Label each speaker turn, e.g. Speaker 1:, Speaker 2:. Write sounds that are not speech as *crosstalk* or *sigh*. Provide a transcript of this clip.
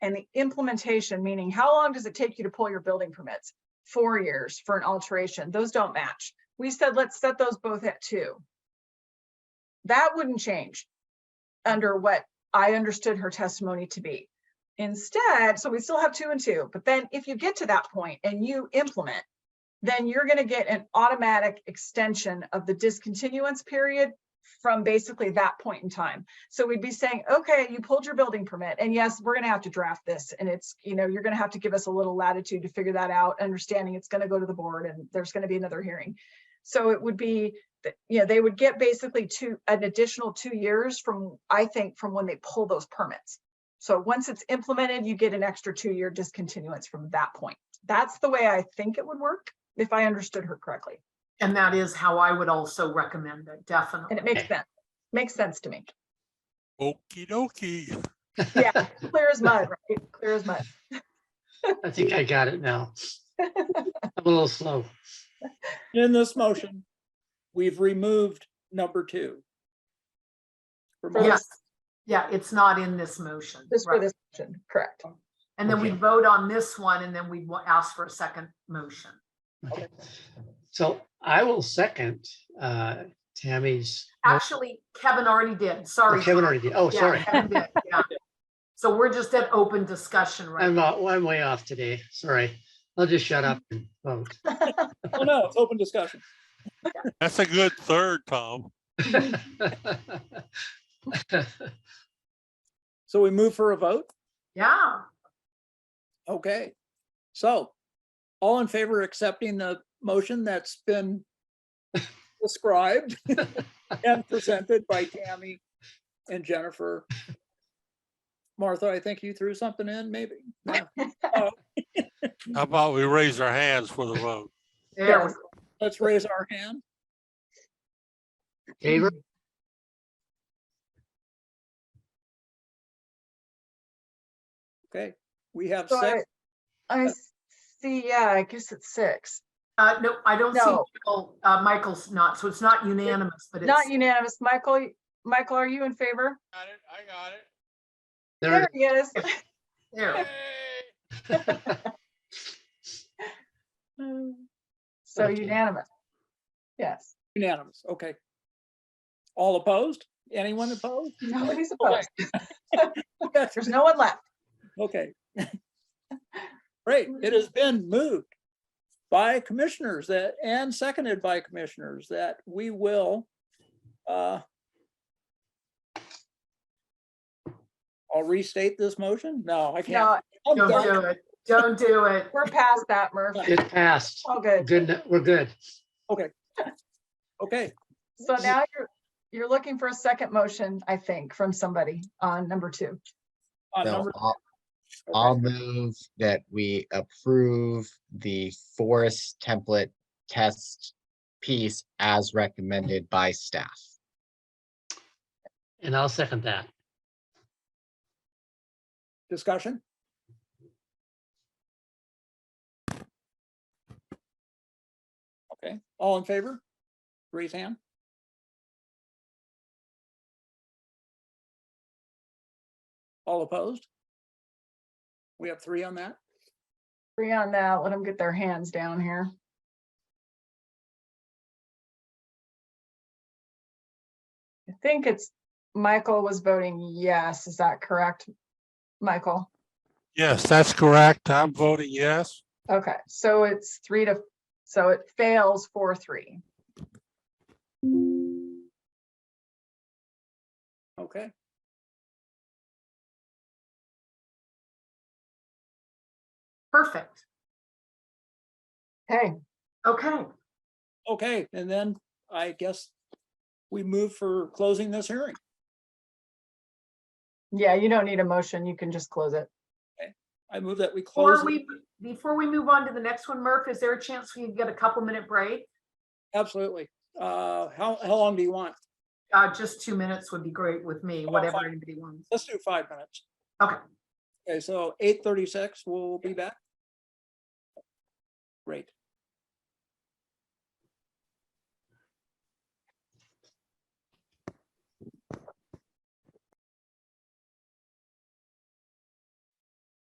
Speaker 1: And the implementation, meaning how long does it take you to pull your building permits? Four years for an alteration. Those don't match. We said, let's set those both at two. That wouldn't change under what I understood her testimony to be. Instead, so we still have two and two, but then if you get to that point and you implement, then you're gonna get an automatic extension of the discontinuance period from basically that point in time. So we'd be saying, okay, you pulled your building permit and yes, we're gonna have to draft this and it's, you know, you're gonna have to give us a little latitude to figure that out, understanding it's gonna go to the board and there's gonna be another hearing. So it would be, that, you know, they would get basically two, an additional two years from, I think, from when they pull those permits. So once it's implemented, you get an extra two-year discontinuance from that point. That's the way I think it would work, if I understood her correctly.
Speaker 2: And that is how I would also recommend it,
Speaker 1: And it
Speaker 2: definitely.
Speaker 1: makes sense, makes sense to me.
Speaker 3: Okie dokie. *laughs*
Speaker 1: Yeah, clear as mud, right? Clear as mud.
Speaker 4: *laughs* I think I got it now. I'm a little slow.
Speaker 5: In this motion, we've removed number two. From our-
Speaker 2: Yes, yeah, it's not in this motion.
Speaker 1: Just for
Speaker 2: right.
Speaker 1: this motion, correct.
Speaker 2: And then we
Speaker 4: Okay.
Speaker 2: vote on this one and then we will ask for a second motion.
Speaker 4: Okay. So I will second uh, Tammy's.
Speaker 2: Actually, Kevin already did,
Speaker 4: Oh,
Speaker 2: Ah, sorry.
Speaker 4: Kevin already did. Oh,
Speaker 2: Yeah,
Speaker 4: sorry.
Speaker 2: Kevin did, yeah. So we're just at open discussion right
Speaker 4: I'm,
Speaker 2: now.
Speaker 4: uh, I'm way off today. Sorry. I'll just shut up and
Speaker 2: *laughs*
Speaker 4: vote.
Speaker 5: Oh, no, it's open discussion.
Speaker 3: That's a good third, Tom.
Speaker 5: So we move for a vote?
Speaker 2: Yeah,
Speaker 5: Okay. So all in favor of accepting the motion that's been described and presented by Tammy and Jennifer? Martha, I think you threw something in, maybe? No.
Speaker 3: How about we raise our hands for the vote?
Speaker 2: there we
Speaker 1: Yes.
Speaker 2: go.
Speaker 5: Let's raise our hand.
Speaker 4: Favor?
Speaker 5: Okay, we have
Speaker 1: So
Speaker 5: six.
Speaker 1: I- I see, yeah, I guess it's six.
Speaker 2: Uh, no, I don't see,
Speaker 1: No.
Speaker 2: Michael. uh, Michael's not, so it's not unanimous, but
Speaker 1: Not
Speaker 2: it's,
Speaker 1: unanimous. Michael, y- Michael, are you in favor?
Speaker 3: Got it, I got it.
Speaker 4: There,
Speaker 1: There he is.
Speaker 2: there.
Speaker 1: *laughs* So
Speaker 4: Okay.
Speaker 1: unanimous. Yes,
Speaker 5: Unanimous, okay. All opposed? Anyone opposed?
Speaker 1: nobody's
Speaker 5: Okay.
Speaker 1: opposed.
Speaker 5: That's-
Speaker 1: There's no one left. *laughs*
Speaker 5: Okay. Great, it has been moved by commissioners that, and seconded by commissioners that we will uh I'll restate this motion? No, I
Speaker 1: No,
Speaker 5: can't. Oh, I'm
Speaker 2: Don't
Speaker 5: done.
Speaker 2: do it, don't do it.
Speaker 1: we're past that, Murph.
Speaker 4: it passed.
Speaker 1: All good.
Speaker 4: Good, we're good.
Speaker 5: Okay,
Speaker 1: So now you're, you're looking for a second motion, I think, from somebody on number two.
Speaker 5: on
Speaker 6: So
Speaker 5: number,
Speaker 6: I'll- I'll move that we approve the forest template test piece as recommended by staff.
Speaker 4: And I'll second that.
Speaker 5: discussion? Okay, all in favor? Raise hand. All opposed? We have three on that?
Speaker 1: Three on that, let them get their hands down here. I think it's, Michael was voting yes, is that correct? Michael,
Speaker 3: Yes, that's correct. I'm voting yes.
Speaker 1: okay, so it's three to, so it fails four, three.
Speaker 5: Okay.
Speaker 2: Perfect,
Speaker 1: Hey,
Speaker 2: okay.
Speaker 5: Okay, and then I guess we move for closing this hearing.
Speaker 1: yeah, you don't need a motion, you can just close it.
Speaker 5: I move that we close.
Speaker 2: Before
Speaker 5: it.
Speaker 2: we, before we move on to the next one, Murph, is there a chance we can get a couple minute break?
Speaker 5: Absolutely. Uh, how, how long do you want?
Speaker 2: Uh, just two minutes would be great with me,
Speaker 5: Oh,
Speaker 2: whatever
Speaker 5: fine.
Speaker 2: anybody wants.
Speaker 5: Let's do five minutes.
Speaker 2: Okay.
Speaker 5: Okay, so eight thirty-six, we'll be back. Great.